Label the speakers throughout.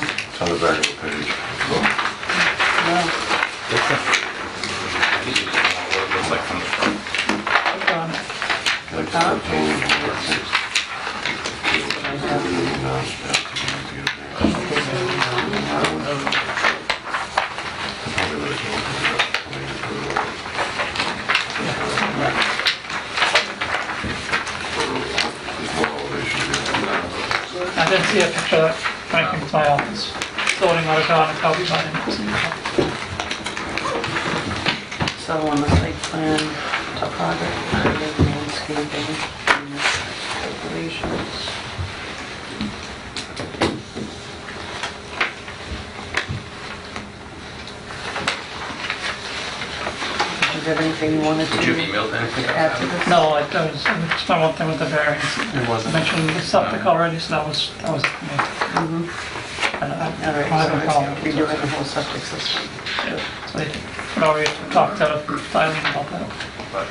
Speaker 1: It's on the back of the page.
Speaker 2: No,
Speaker 3: Looks like from the front.
Speaker 2: it's
Speaker 1: Like
Speaker 2: on. Huh?
Speaker 1: 13, or 16.
Speaker 2: I didn't see a picture of Frank in my office, sorting out a garden copy by him.
Speaker 4: So on the site plan, topography, landscaping, and calculations. Did you have anything you wanted
Speaker 3: Would you have
Speaker 4: to
Speaker 3: emailed anything?
Speaker 4: add to this?
Speaker 2: No, I I was, I was just my one thing with the variance.
Speaker 3: It
Speaker 2: I
Speaker 3: wasn't.
Speaker 2: mentioned the septic already, so that was, that was me. And I I
Speaker 4: All
Speaker 2: have a
Speaker 4: right,
Speaker 2: problem.
Speaker 4: so we do have a whole septic system.
Speaker 2: uh, So they could already talk to Eileen about that.
Speaker 3: But,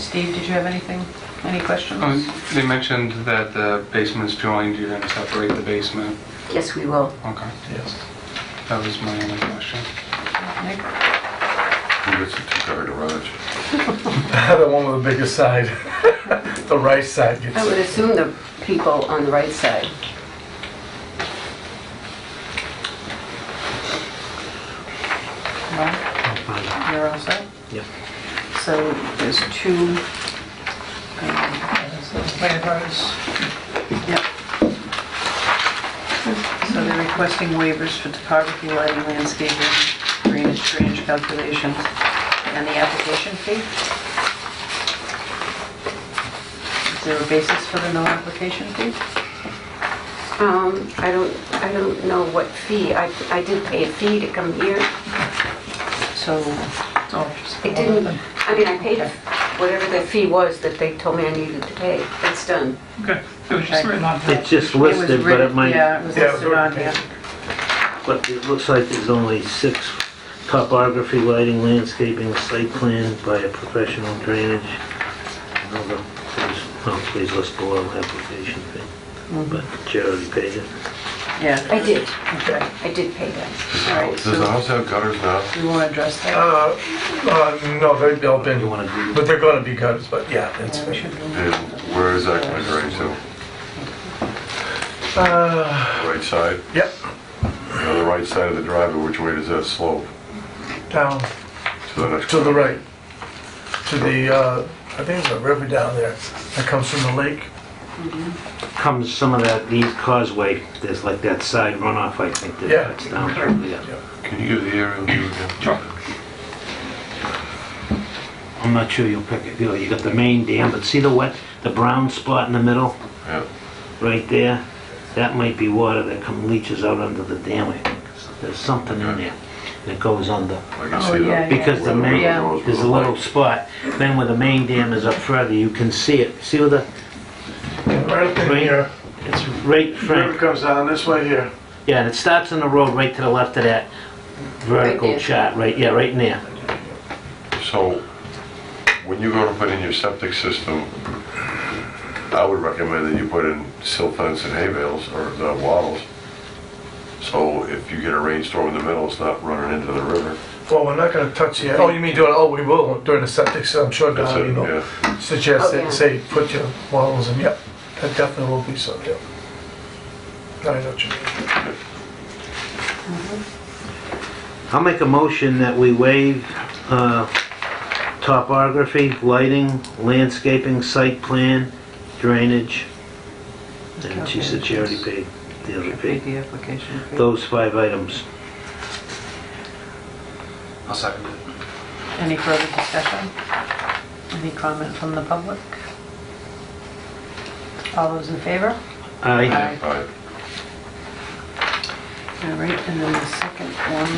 Speaker 4: Steve, did you have anything, any questions?
Speaker 5: Um, They mentioned that the basement's joined, you're gonna separate the basement.
Speaker 6: Yes, we will.
Speaker 5: Okay,
Speaker 2: Yes.
Speaker 5: that was my only question.
Speaker 4: Nick?
Speaker 1: Who gets a two-car garage?
Speaker 7: The one with the biggest side, the right side gets
Speaker 6: I would
Speaker 7: it.
Speaker 6: assume the people on the right side.
Speaker 4: Mark, you're all set? Yep. So there's two, um,
Speaker 2: And so the waivers,
Speaker 4: yep. So they're requesting waivers for topography, lighting, landscaping, drainage, drainage calculations, and the application fee? Is there a basis for the no application fee?
Speaker 6: Um, I don't, I don't know what fee. I, I did pay a fee to come here.
Speaker 4: So,
Speaker 2: so just.
Speaker 6: I didn't, I mean, I paid whatever the fee was that they told me I needed to pay. It's done.
Speaker 2: Okay, it was just written on
Speaker 8: It's
Speaker 2: that.
Speaker 8: just
Speaker 4: it was
Speaker 8: listed, but it
Speaker 4: written,
Speaker 8: might,
Speaker 4: yeah, it was
Speaker 7: Yeah,
Speaker 4: listed on here.
Speaker 8: but it looks like there's only six topography, lighting, landscaping, site plan by a professional drainage. Another, please, no, please list below application fee.
Speaker 4: Mm-hmm.
Speaker 8: But Jerry already paid it.
Speaker 4: Yeah,
Speaker 6: I did.
Speaker 4: okay,
Speaker 6: I did pay that.
Speaker 4: all right,
Speaker 1: Does the
Speaker 4: so
Speaker 1: house have gutters now?
Speaker 4: do you want to address that?
Speaker 7: Uh, uh, no, they've all been,
Speaker 8: You wanna do-
Speaker 7: but they're gonna be gutters, but yeah, it's,
Speaker 4: Yeah, we should do-
Speaker 1: And where is that going right to?
Speaker 7: uh,
Speaker 1: Right side?
Speaker 7: yep,
Speaker 1: On the right side of the driveway, which way does that slope?
Speaker 7: down
Speaker 1: To the next...
Speaker 7: to the right. To the, uh, I think there's a river down there that comes from the lake.
Speaker 8: Comes some of that, these causeway, there's like that side runoff, I think,
Speaker 7: Yeah.
Speaker 8: that cuts down through there.
Speaker 1: Can you give the aerial view again? Sure.
Speaker 8: I'm not sure you'll pick it, you know, you got the main dam, but see the wet, the brown spot in the middle,
Speaker 1: Yeah.
Speaker 8: right there? That might be water that come leaches out under the dam, I think. There's something in there that goes under.
Speaker 1: I can
Speaker 4: Oh,
Speaker 1: see
Speaker 4: yeah,
Speaker 1: that.
Speaker 4: yeah.
Speaker 8: Because the main,
Speaker 4: Yeah.
Speaker 8: there's a little spot, then where the main dam is up further, you can see it. See where the,
Speaker 7: Right up in
Speaker 8: Right.
Speaker 7: here,
Speaker 8: it's right,
Speaker 7: river
Speaker 8: Frank?
Speaker 7: comes down this way here.
Speaker 8: Yeah, and it starts on the road right to the left of that vertical
Speaker 6: there.
Speaker 8: chart, right, yeah, right in there.
Speaker 1: So, when you go to put in your septic system, I would recommend that you put in silt fence and hay bales or the wattles. So if you get a rainstorm in the middle, it's not running into the river.
Speaker 7: Well, we're not gonna touch the, oh, you mean doing, oh, we will during the septic, so I'm sure
Speaker 1: That's
Speaker 7: Don,
Speaker 1: it,
Speaker 7: you know,
Speaker 1: yeah.
Speaker 7: suggests
Speaker 6: Oh, yeah.
Speaker 7: that, say, put your walls in, yep, that definitely will be so, yep. I know what you mean.
Speaker 8: I'll make a motion that we waive uh, topography, lighting, landscaping, site plan, drainage. And she said she already paid, the other paid,
Speaker 4: The application fee.
Speaker 8: those five items.
Speaker 3: I'll second it.
Speaker 4: Any further discussion? Any comment from the public? All those in favor?
Speaker 8: Aye.
Speaker 4: Aye.
Speaker 1: All right.
Speaker 4: All right, and then the second one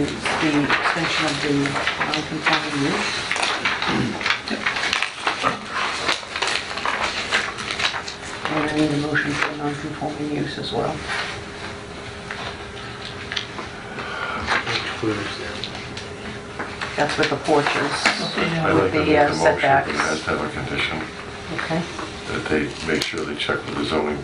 Speaker 4: is the extension of the non-conforming use. And I need a motion for non-conforming use as well. That's with the porches,
Speaker 1: I'd
Speaker 4: With
Speaker 1: like to
Speaker 4: the,
Speaker 1: make
Speaker 4: uh,
Speaker 1: a motion, but it
Speaker 4: setbacks.
Speaker 1: has to have a condition
Speaker 4: okay?
Speaker 1: that they make sure they check with the zoning